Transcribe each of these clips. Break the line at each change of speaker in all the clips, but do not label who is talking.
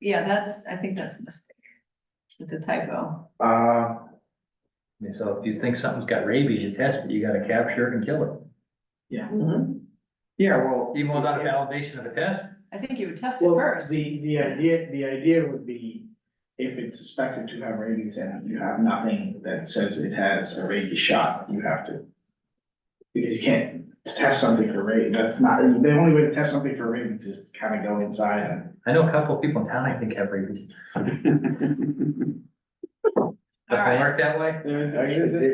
Yeah, that's, I think that's a mistake. It's a typo.
Uh,
And So if you think something's got rabies, you test it, you gotta capture it and kill it,
yeah, well.
even without a validation of a test.
I think you would test it
Well,
first.
the, the idea, the idea would be if it's suspected to have rabies and you have nothing that says it has a rabies shot, you have to. Because you can't test something for rabies, that's not, the only way to test something for rabies is to kind of go inside and.
I know a couple of people in town I think have rabies.
All
Does it
right,
work that way?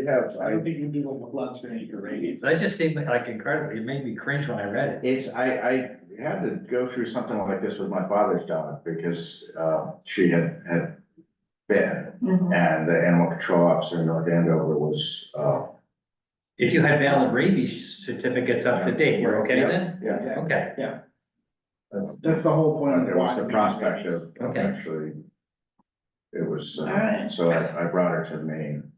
have. I don't think you do like a blood screening for rabies.
So that just seemed like incredible, it made me cringe when I read it.
It's, I, I had to go through something like this with my father's dog because, uh, she had, had been.
Mhm.
And the animal control officer in North Andover was, uh.
If you had valid rabies certificates up to date, you're okay then?
Yeah.
Okay,
That's the whole point. of
There was
why
the
we do
prospect
rabies.
of, of
Okay.
actually. It was,
All
uh,
right.
so I, I brought her to Maine.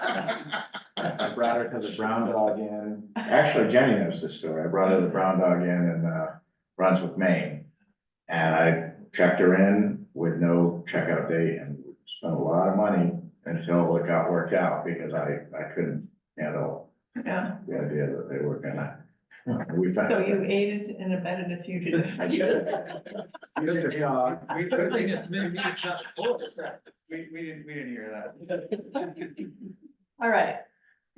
I brought her to the brown dog inn. Actually, Jenny knows this story. I brought her to the brown dog inn in, uh, Brunswick, Maine. And I checked her in with no checkout date and spent a lot of money until it got worked out because I, I couldn't handle
Yeah,
the idea that they were gonna. we found-
so you aided and abetted a fugitive.
I did. Good dog.
We certainly just made me sound old, so.
We, we didn't, we didn't hear
All right.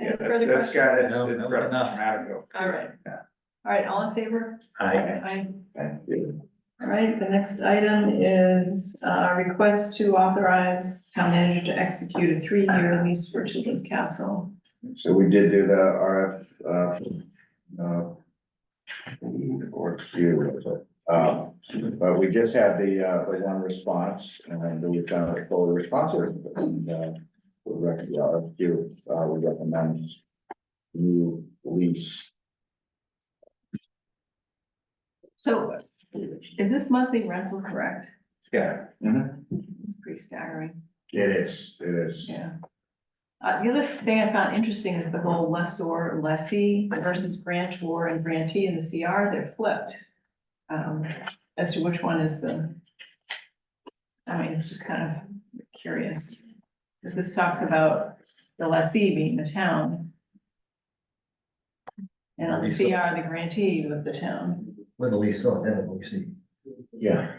Any
Yeah, that's,
further
that's
questions?
got, it's,
No,
it's
that was enough.
grammatical.
All right.
Yeah.
All right, all in favor?
I,
Aye.
Thank you.
All right, the next item is uh request to authorize town manager to execute a three-year lease for Children's Castle.
So we did do the RF, uh, uh, or excuse, what was it? Um, but we just had the, uh, the one response and we found it fully responsive. And, uh, we recommend, RFQ, uh, we recommend new lease.
So is this monthly rental correct?
Yeah.
It's pretty staggering,
It is, it is.
yeah. Uh, the other thing I found interesting is the whole lessor, lessee versus grantor and grantee in the CR, they're flipped. Um, as to which one is the. I mean, it's just kind of curious, because this talks about the lessee being the town. And on the CR, the grantee was the town.
with a lease, so then we see.
Yeah.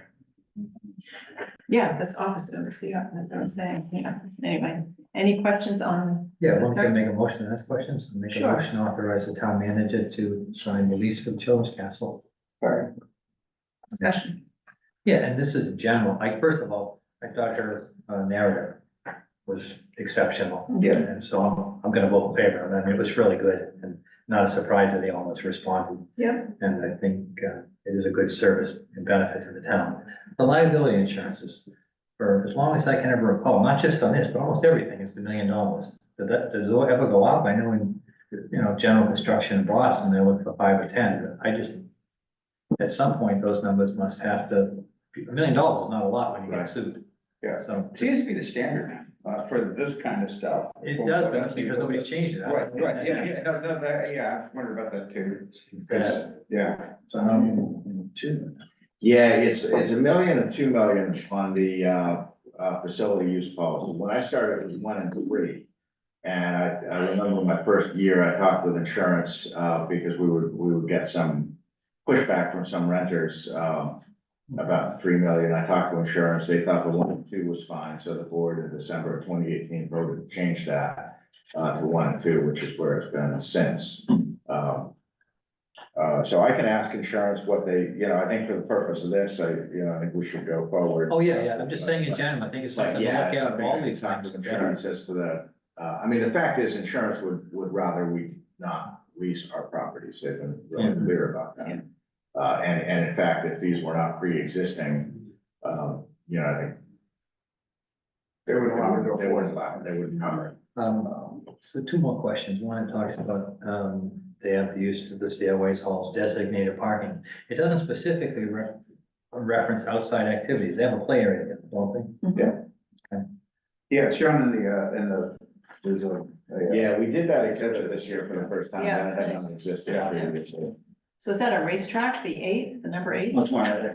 Yeah, that's opposite of the CR, that's what I'm saying, yeah. Anyway, any questions on
Yeah, one can make a motion to ask questions, make a
Sure.
motion to authorize the town manager to sign the lease for the children's castle.
discussion?
Yeah, and this is general, like, first of all, I thought her uh, narrative was exceptional.
Yeah.
And so I'm, I'm gonna vote in favor, of it. I mean, it was really good, and not a surprise that they almost responded.
Yep.
And I think, uh, it is a good service and benefit to the town. The liability insurances, for as long as I can ever recall, not just on this, but almost everything, is the million dollars. Did that, does it ever go up? I know in, you know, general construction in Boston, they look for five or ten, but I just, at some point, those numbers must have to, a million dollars is not a lot when you get
Right.
sued.
Yeah.
So
Seems to be the standard, uh, for this kind of stuff.
it does, but I'm saying because nobody's changed it.
Right, right, yeah, yeah, no, no, that- yeah, I wondered about that too,
That-
yeah.
It's a million
um,
and two. Yeah, it's, it's a million and two million on the, uh, uh, facility use policy. When I started, it was one and three. And I, I remember my first year, I talked with insurance, uh, because we would, we would get some pushback from some renters, um, about three million. I talked to insurance. They thought the one and two was fine, so the board in December of twenty eighteen voted to change that uh, to one and two, which is where it's been since. Um, uh, so I can ask insurance what they, you know, I think for the purpose of this, I, you know, I think we should go forward.
Oh, yeah, yeah, I'm just saying in general, I think it's something
But
to look
yeah,
at
it's
of
something
all
I
these
talked
things.
to insurance as to the, uh, I mean, the fact is insurance would, would rather we not lease our properties. They've been really
Yeah.
clear about that. Uh, and, and in fact, if these were not pre-existing, um, you know, I think
They would allow it to go
They would allow it, they would cover it.
Um,
Um,
so two more questions, one it talks about, um, they have the use of the stairways, halls, designated parking. It doesn't specifically re- reference outside activities, they have a play area, don't they?
Yeah, it's shown in the, uh, in the, there's a, a, uh,
Yeah, we did that exhibit this year for the first time.
Yeah, it's
That had
nice.
not existed
Yeah.
previously.
So is that a racetrack, the eight, the number eight?
which one, I think.